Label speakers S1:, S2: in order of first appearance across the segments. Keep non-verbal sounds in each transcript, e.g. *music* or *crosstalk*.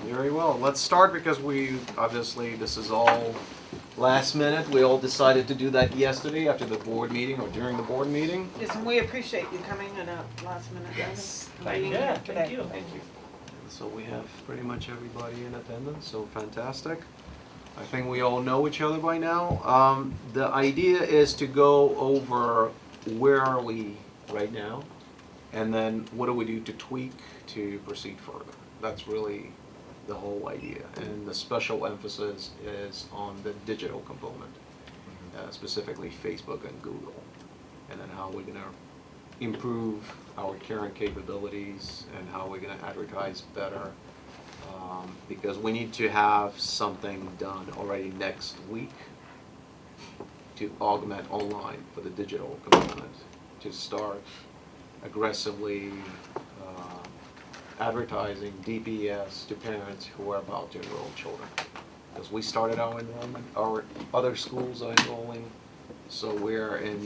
S1: Very well, let's start because we, obviously, this is all last minute. We all decided to do that yesterday after the board meeting or during the board meeting.
S2: Yes, and we appreciate you coming in a last minute notice.
S1: Yes,
S2: and
S1: thank
S2: being
S1: you.
S2: here
S3: Yeah, thank
S2: today.
S3: you.
S2: Thank you.
S1: So we have pretty much everybody in attendance, so fantastic. I think we all know each other by now. Um, the idea is to go over where are we right now? And then what do we do to tweak to proceed further? That's really the whole idea. And the special emphasis is on the digital component, uh, specifically Facebook and Google. And then how we're gonna improve our current capabilities and how we're gonna advertise better. Um, because we need to have something done already next week to augment online for the digital component, to start aggressively, um, advertising DPS to parents who are about to enroll children. Because we started our enrollment, our other schools are enrolling, so we're in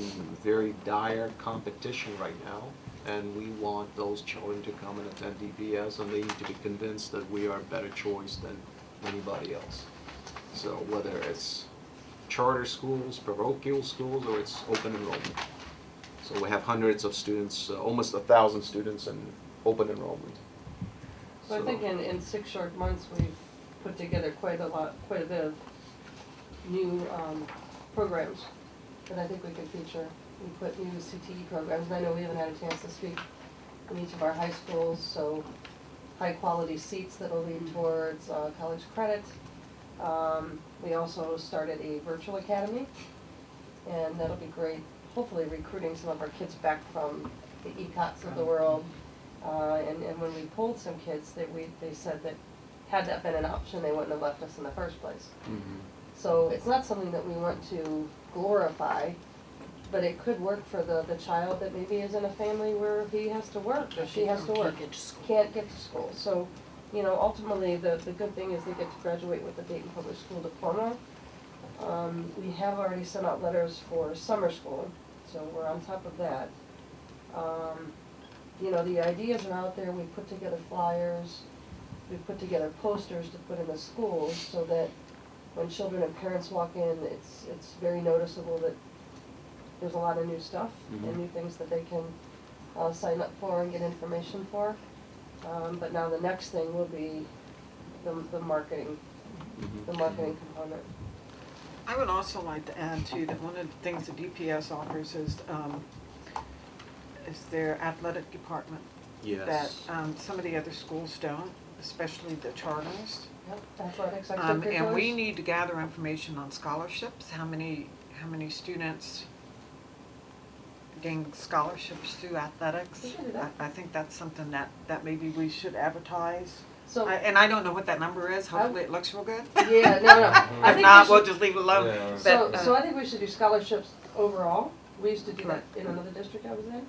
S1: very dire competition right now. And we want those children to come and attend DPS and they need to be convinced that we are a better choice than anybody else. So whether it's charter schools, parochial schools, or it's open enrollment. So we have hundreds of students, uh, almost a thousand students in open enrollment.
S4: So I
S1: So-
S4: think in, in six short months, we've put together quite a lot, quite a bit of new, um, programs that I think we can feature. We put new CTE programs, and I know we haven't had a chance to speak in each of our high schools, so high-quality seats that'll lead towards, uh, college credit. Um, we also started a virtual academy, and that'll be great, hopefully recruiting some of our kids back from the ECOTs of the world. Uh, and, and when we pulled some kids, that we, they said that had that been an option, they wouldn't have left us in the first place. So it's not something that we want to glorify, but it could work for the, the child that maybe is in a family where he has to work, or she has to work, can't get to school. So, you know, ultimately, the, the good thing is they get to graduate with a Dayton Public School diploma. Um, we have already sent out letters for summer school, so we're on top of that. Um, you know, the ideas are out there, we put together flyers, we put together posters to put in the schools so that when children and parents walk in, it's, it's very noticeable that there's a lot of new stuff
S1: Mhm.
S4: and new things that they can, uh, sign up for and get information for. Um, but now the next thing will be the, the marketing,
S1: Mm-hmm.
S4: the marketing component.
S2: I would also like to add too, that one of the things that DPS offers is, um, is their athletic department.
S1: Mm-hmm. Yes.
S2: That, um, some of the other schools don't, especially the charters.
S4: Yep, athletics,
S2: Um,
S4: extracurriculars.
S2: and we need to gather information on scholarships, how many, how many students gain scholarships through athletics.
S4: We can do that.
S2: I, I think that's something that, that maybe we should advertise.
S4: So,
S2: I-
S4: yeah,
S2: And I don't know what that number is, hopefully it looks real good. *laughs*
S4: no, no. I
S2: If
S4: think
S2: not,
S4: we
S2: we'll
S4: should-
S2: just leave it alone.
S1: Yeah.
S4: So,
S2: But, uh,
S4: so I think we should do scholarships overall. We used to do that in another district I was in.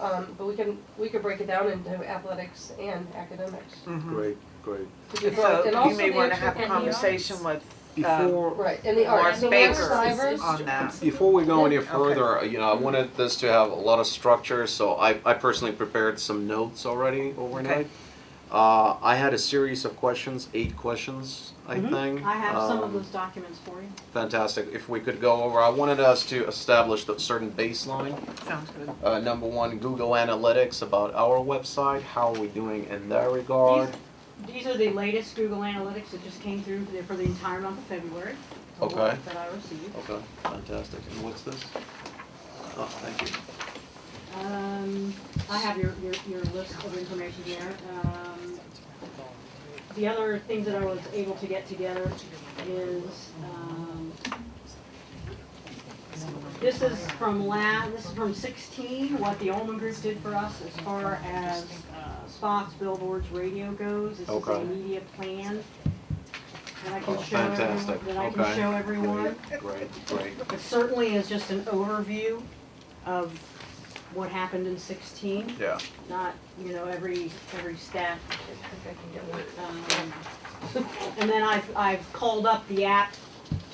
S4: Um, but we can, we could break it down into athletics and academics.
S2: mhm.
S1: Great, great.
S4: to be broad. And
S2: So
S4: also
S2: you may
S4: the
S2: wanna
S4: extra-
S2: have a
S5: and the
S2: conversation with, um,
S1: Before,
S4: Right, and the arts,
S2: Warren
S4: so we have
S2: Baker
S4: slivers.
S2: on that.
S1: before we go any
S4: Okay.
S1: further, you know, I wanted this to have a lot of structure, so I, I personally prepared some notes already overnight. Uh, I had a series of questions, eight questions, I think.
S5: Mm-hmm. I have some
S1: Um,
S5: of those documents for you.
S1: Fantastic. If we could go over, I wanted us to establish a certain baseline.
S2: um, Sounds good.
S1: Uh, number one, Google Analytics about our website. How are we doing in that regard?
S5: These are the latest Google Analytics that just came through for the entire month of February. the
S1: Okay.
S5: ones That I received.
S1: Okay, fantastic. And what's this? Oh, thank you.
S5: Um, I have your, your, your list of information there. Um, the other things that I was able to get together is, um, this is from la, this is from sixteen, what the Allman Group did for us as far as uh, spots, billboards, radio goes. This is a
S1: Okay.
S5: media plan that I
S1: Oh,
S5: can show everyone,
S1: fantastic.
S5: that I
S1: Okay.
S5: can show everyone.
S1: Great, great.
S5: It certainly is just an overview of what happened in sixteen,
S1: Yeah.
S5: not, you know, every, every stat.
S4: I think I can get one.
S5: Um, And then I've, I've called up the app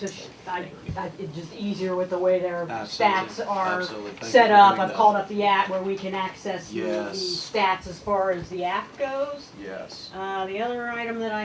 S5: to, sh- I, I- it's just easier with the way their stats are set up. I've called up the app where we can access the the
S1: Yes.
S5: stats as far as the app goes.
S1: Yes.
S5: Uh, the other item that I